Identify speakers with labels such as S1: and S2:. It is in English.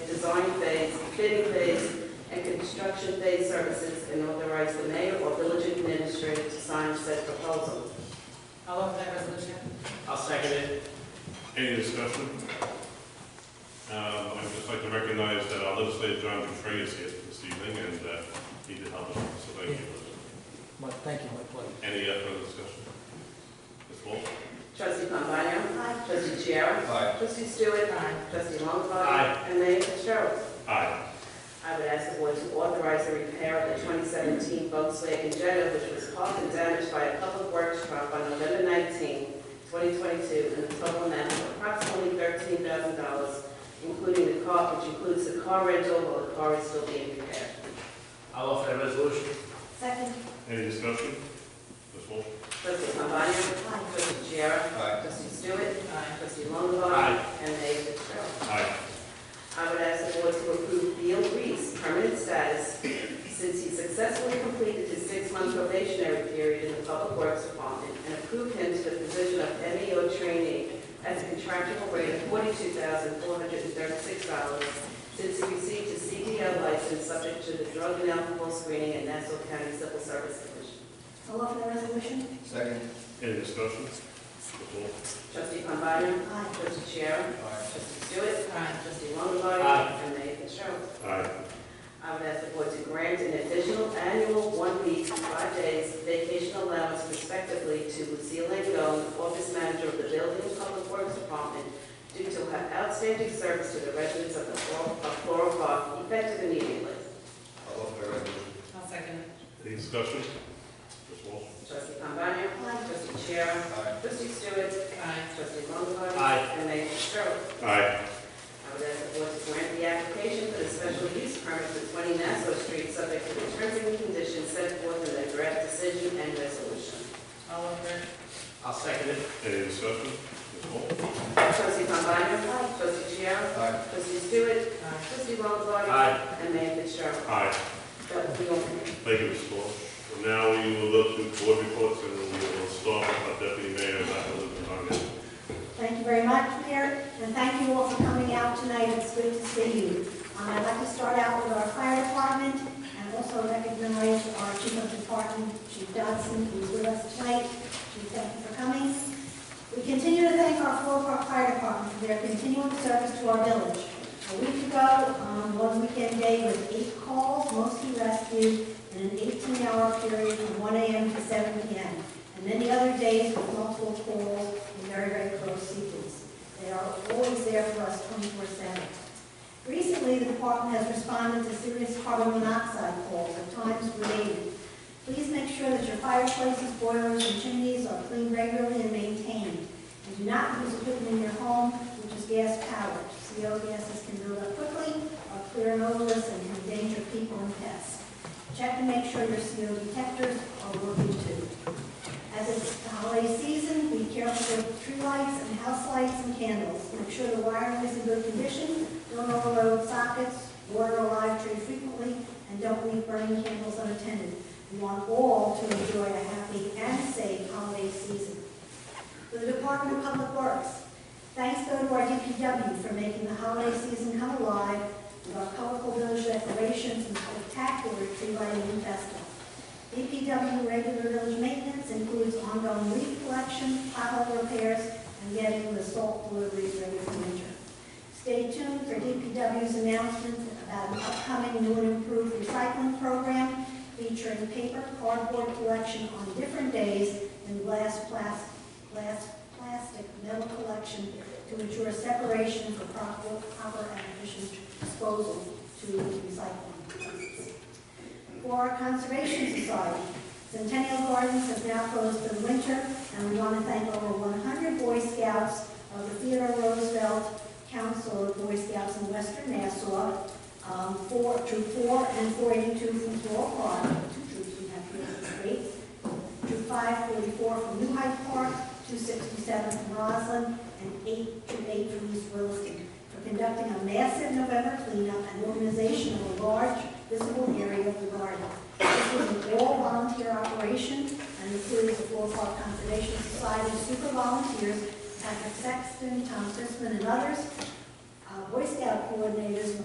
S1: design phase, bidding phase, and construction phase services, and authorize the mayor or village administrator to sign said proposal.
S2: I'll offer that resolution.
S3: I'll second it.
S4: Any discussion? Um, I'd just like to recognize that our legislator, John Contreras, is here this evening, and uh, he did help us, so thank you.
S5: My, thank you, my pleasure.
S4: Any uh, further discussion? Ms. Walsh?
S1: Trustee Pombana. Aye. Trustee Chiara.
S6: Aye.
S1: Trustee Stewart. Aye. Trustee Longbody.
S3: Aye.
S1: And Mayor Fitzgerald.
S4: Aye.
S1: I would ask the board to authorize the repair of the 2017 Volkswagen Jetta, which was caused and damaged by a public works truck on November 19, 2022, in a total amount of approximately $13,000, including the car, which includes the car rental while the car is still being repaired.
S3: I'll offer that resolution.
S7: Second.
S4: Any discussion? Ms. Walsh?
S1: Trustee Pombana. Aye. Trustee Chiara.
S6: Aye.
S1: Trustee Stewart.
S2: Aye.
S1: Trustee Longbody.
S3: Aye.
S1: And Mayor Fitzgerald.
S4: Aye.
S1: I would ask the board to approve Beal Reed's permanent status since he successfully completed his six-month probationary period in the Public Works Department and approve him to the position of MEO trainee at a contractual rate of forty-two thousand four hundred and thirty-six dollars since he received his CDL license subject to the drug and alcohol screening at Nassau County Civil Service Commission.
S7: I'll offer the resolution.
S6: Second.
S4: Any discussion? Ms. Walsh?
S1: Trustee Pombana.
S7: Aye.
S1: Trustee Chair.
S6: Aye.
S1: Trustee Stewart.
S2: Aye.
S1: Trustee Longbody.
S3: Aye.
S1: And Mayor Fitzgerald.
S4: Aye.
S1: I would ask the board to grant an additional annual one-week, five days vacation allowance respectively to Lucille Langone, office manager of the Building and Public Works Department, due to her outstanding service to the residents of the Flor- of Floral Park, effective immediately.
S6: I'll offer the resolution.
S2: I'll second it.
S4: Any discussion? Ms. Walsh?
S1: Trustee Pombana.
S7: Aye.
S1: Trustee Chair.
S6: Aye.
S1: Trustee Stewart.
S2: Aye.
S1: Trustee Longbody.
S3: Aye.
S1: And Mayor Fitzgerald.
S4: Aye.
S1: I would ask the board to grant the application for the special use permit for 20 Nassau Street, subject to the terms and conditions set forth in the draft decision and resolution.
S2: I'll offer it.
S3: I'll second it.
S4: Any discussion? Ms. Walsh?
S1: Trustee Pombana. Trustee Chiara.
S6: Aye.
S1: Trustee Stewart.
S2: Aye.
S1: Trustee Longbody.
S3: Aye.
S1: And Mayor Fitzgerald.
S4: Aye.
S1: That will be all for me.
S4: Thank you, Ms. Walsh. And Now we will look to board reports, and we will start with our deputy mayor, Dr. Luke Congan.
S7: Thank you very much, Mayor, and thank you all for coming out tonight. It's good to see you. Um, I'd like to start out with our fire department and also recognize our chief of department, Chief Dodson, who's with us tonight. Chief, thank you for coming. We continue to thank our Floral Park Fire Department for their continuing service to our village. A week ago, um, one weekend day was eight calls, mostly rescue, in an 18-hour period from 1 AM to 7 PM. And many other days with multiple calls and very, very close sequence. They are always there for us 24/7. Recently, the department has responded to serious carbon monoxide calls at times related. Please make sure that your fireplaces, boilers, and chimneys are cleaned regularly and maintained. And do not use equipment in your home which is gas powered. CO gases can build up quickly, are clear and odorless, and can endanger people and pests. Check and make sure your CO detectors are working too. As it's the holiday season, be careful with tree lights and house lights and candles. Make sure the wiring is in good condition, don't overload sockets, water a live tree frequently, and don't leave burning candles unattended. We want all to enjoy a happy and safe holiday season. For the Department of Public Works, thanks go to our DPW for making the holiday season come alive with our colorful village decorations and spectacular tree lighting festival. DPW regular village maintenance includes ongoing leaf collection, pothole repairs, and getting the salt deliveries ready for winter. Stay tuned for DPW's announcements about an upcoming new and improved recycling program featuring paper cardboard collection on different days and glass, plas- glass, plastic, metal collection to ensure separation for proper, proper and efficient disposal to recycling places for our Conservation Society. Centennial Gardens has now closed for the winter, and we want to thank over 100 Boy Scouts of the Theodore Roosevelt Council of Boy Scouts in Western Nassau, um, four, troop four and 482 from Floral Park, two troops from that great, troop 544 from New Hyde Park, 267 from Roslyn, and 8, troop 8 from East Williston, for conducting a massive November cleanup and organization of a large visible area of the garden. This was an all-volunteer operation and includes the Floral Park Conservation Society super volunteers, Patrick Sexton, Tom Christman, and others. Uh, Boy Scout coordinators